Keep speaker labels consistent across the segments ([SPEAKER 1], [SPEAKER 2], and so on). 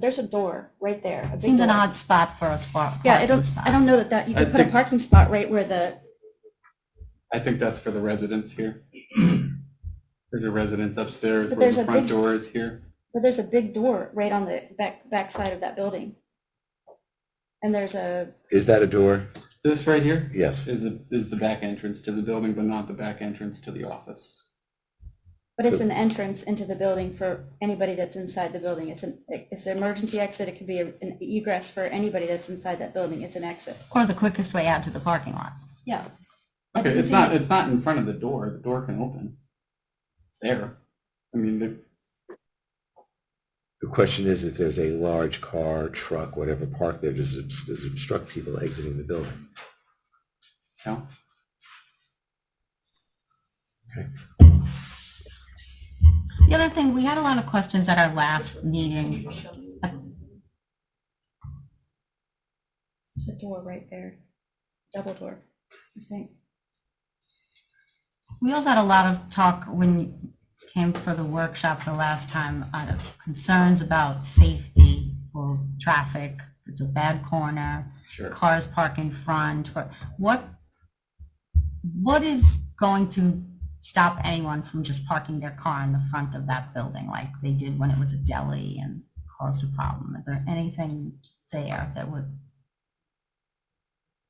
[SPEAKER 1] There's a door right there. a big
[SPEAKER 2] Seems an
[SPEAKER 1] door.
[SPEAKER 2] odd spot for a spot.
[SPEAKER 1] Yeah, I don't, I don't know that that, you
[SPEAKER 3] I
[SPEAKER 1] could put a
[SPEAKER 3] think-
[SPEAKER 1] parking spot right where the,
[SPEAKER 3] I think that's for the residents here. There's a residence upstairs
[SPEAKER 1] But
[SPEAKER 3] where
[SPEAKER 1] there's
[SPEAKER 3] the
[SPEAKER 1] a
[SPEAKER 3] front
[SPEAKER 1] big-
[SPEAKER 3] door is here.
[SPEAKER 1] but there's a big door right on the back, back side of that building. And there's a,
[SPEAKER 4] Is that a door?
[SPEAKER 3] This right here
[SPEAKER 4] Yes.
[SPEAKER 3] is the, is the back entrance to the building, but not the back entrance to the office.
[SPEAKER 1] but it's
[SPEAKER 4] So-
[SPEAKER 1] an entrance into the building for anybody that's inside the building. It's an, it's an emergency exit. It could be a- an egress for anybody that's inside that building. It's an exit.
[SPEAKER 2] Or the quickest way out to the parking lot.
[SPEAKER 1] Yeah. That
[SPEAKER 3] Okay,
[SPEAKER 1] doesn't
[SPEAKER 3] it's not,
[SPEAKER 1] seem-
[SPEAKER 3] it's not in front of the door. The door can open. It's there. I mean, the-
[SPEAKER 4] The question is if there's a large car, truck, whatever parked there, does it does it obstruct people exiting the building?
[SPEAKER 3] no.
[SPEAKER 2] The other thing, we had a lot of questions at our last meeting.
[SPEAKER 1] There's a door right there. Double door, I think.
[SPEAKER 2] We also had a lot of talk when you came for the workshop the last time, uh, concerns about safety or traffic. It's a bad corner,
[SPEAKER 3] Sure.
[SPEAKER 2] cars park in front. or- What, what is going to stop anyone from just parking their car in the front of that building like they did when it was a deli and caused a problem? Is there anything there that would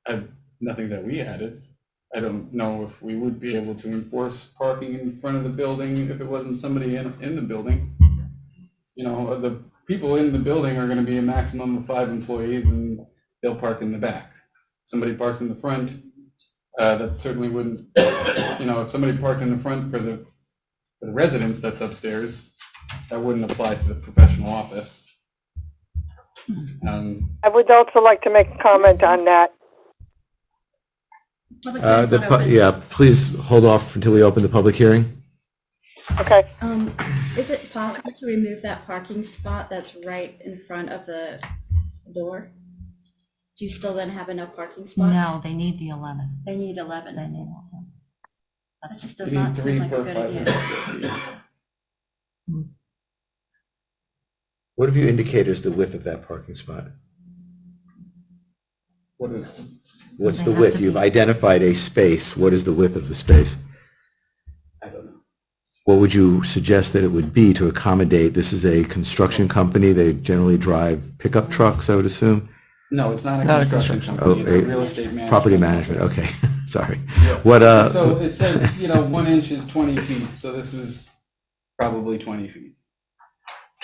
[SPEAKER 3] I, nothing that we added. I don't know if we would be able to enforce parking in front of the building if it wasn't somebody in, in the building. You know, the people in the building are gonna be a maximum of five employees and they'll park in the back. Somebody parks in the front, uh, that certainly wouldn't, you know, if somebody parked in the front for the, for the residence that's upstairs, that wouldn't apply to the professional office. Um,
[SPEAKER 5] I would also like to make a comment on that.
[SPEAKER 4] Uh, the pu- Yeah, please hold off until we open the public hearing.
[SPEAKER 5] Okay,
[SPEAKER 1] Um, is it possible to remove that parking spot that's right in front of the door? Do you still then have enough parking spots?
[SPEAKER 2] No, they need the 11.
[SPEAKER 1] They need
[SPEAKER 2] They
[SPEAKER 1] eleven.
[SPEAKER 2] need 11.
[SPEAKER 1] That just
[SPEAKER 3] we
[SPEAKER 1] does
[SPEAKER 3] need
[SPEAKER 1] not
[SPEAKER 3] three
[SPEAKER 1] seem like
[SPEAKER 3] per
[SPEAKER 1] a good idea.
[SPEAKER 3] 500 square feet.
[SPEAKER 4] What have you indicated is the width of that parking spot?
[SPEAKER 3] What is,
[SPEAKER 4] What's
[SPEAKER 2] They
[SPEAKER 4] the
[SPEAKER 2] have
[SPEAKER 4] width?
[SPEAKER 2] to
[SPEAKER 4] You've
[SPEAKER 2] be-
[SPEAKER 4] identified a space. What is the width of the space?
[SPEAKER 3] I don't know.
[SPEAKER 4] What would you suggest that it would be to accommodate? This is a construction company. They generally drive pickup trucks, I would assume.
[SPEAKER 3] No, it's not a
[SPEAKER 4] Not a
[SPEAKER 3] construction
[SPEAKER 4] construction-
[SPEAKER 3] company, it's
[SPEAKER 4] oh,
[SPEAKER 3] a
[SPEAKER 4] a
[SPEAKER 3] real estate management.
[SPEAKER 4] Property management,
[SPEAKER 3] office.
[SPEAKER 4] okay, sorry.
[SPEAKER 3] Yeah.
[SPEAKER 4] What, uh?
[SPEAKER 3] So it says, you know, one inch is twenty feet, so this is probably twenty feet.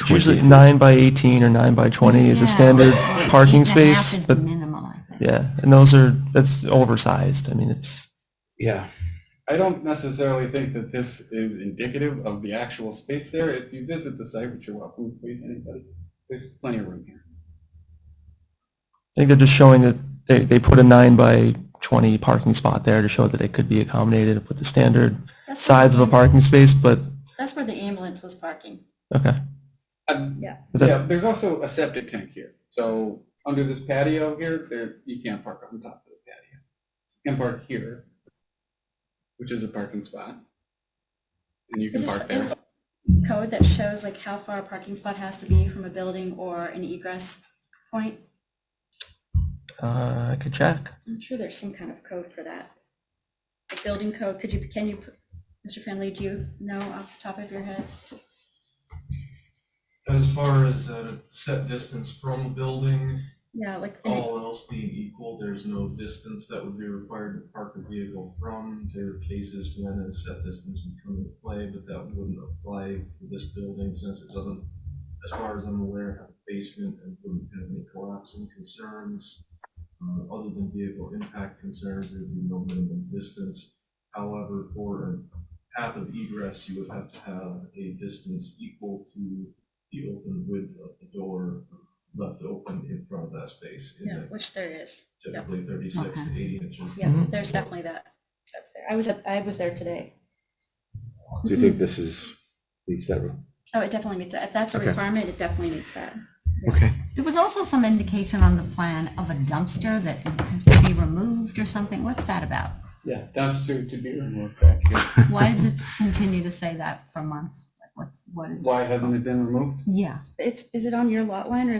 [SPEAKER 6] It's usually nine by 18 or nine by 20 is a
[SPEAKER 2] Yeah.
[SPEAKER 6] standard
[SPEAKER 2] Eight
[SPEAKER 6] parking
[SPEAKER 2] and a half
[SPEAKER 6] space,
[SPEAKER 2] is
[SPEAKER 6] but
[SPEAKER 2] the minimum, I think.
[SPEAKER 6] yeah, and those are, that's oversized. I mean, it's,
[SPEAKER 4] Yeah.
[SPEAKER 3] I don't necessarily think that this is indicative of the actual space there. If you visit the site, which you're welcome, please, anybody, there's plenty of room here.
[SPEAKER 6] I think they're just showing that they, they put a nine by 20 parking spot there to show that it could be accommodated with the standard
[SPEAKER 1] That's
[SPEAKER 6] size of a
[SPEAKER 1] where-
[SPEAKER 6] parking space, but,
[SPEAKER 1] That's where the ambulance was parking.
[SPEAKER 6] okay.
[SPEAKER 3] Um,
[SPEAKER 1] Yeah.
[SPEAKER 3] Yeah, there's also a septic tank here, so under this patio here, there, you can't park on top of the patio. You can park here, which is a parking spot. And you
[SPEAKER 1] Is
[SPEAKER 3] can
[SPEAKER 1] there
[SPEAKER 3] park there.
[SPEAKER 1] some code that shows like how far a parking spot has to be from a building or an egress point?
[SPEAKER 6] Uh, I could check.
[SPEAKER 1] I'm sure there's some kind of code for that. A building code, could you, can you, Mr. Finley, do you know off the top of your head?
[SPEAKER 7] As far as a set distance from a building,
[SPEAKER 1] Yeah, like. an-
[SPEAKER 7] all else being equal, there's no distance that would be required to park a vehicle from. There are cases when a set distance would come into play, but that wouldn't apply to this building since it doesn't, as far as I'm aware, have a basement and wouldn't have any collapsing concerns. Uh, Other than vehicle impact concerns, there'd be no minimum distance. However, for a path of egress, you would have to have a distance equal to the open width of the door left open in front of that space in
[SPEAKER 1] Yeah,
[SPEAKER 7] the
[SPEAKER 1] which there is. Yeah.
[SPEAKER 7] typically thirty-six to eighty inches.
[SPEAKER 1] Yeah,
[SPEAKER 6] Mhm.
[SPEAKER 1] there's definitely that. That's there. I was, at- I was there today.
[SPEAKER 4] Do you think this is, meets that rule?
[SPEAKER 1] Oh, it definitely meets that. If that's a
[SPEAKER 4] Okay.
[SPEAKER 1] requirement, it definitely meets that.
[SPEAKER 4] Okay.
[SPEAKER 2] There was also some indication on the plan of a dumpster that has to be removed or something. What's that about?
[SPEAKER 3] Yeah, dumpster to be removed back here.
[SPEAKER 2] Why does it continue to say that for months? Like, What's, what is?
[SPEAKER 3] Why hasn't it been removed?
[SPEAKER 2] Yeah.
[SPEAKER 1] It's, is it on your lot line or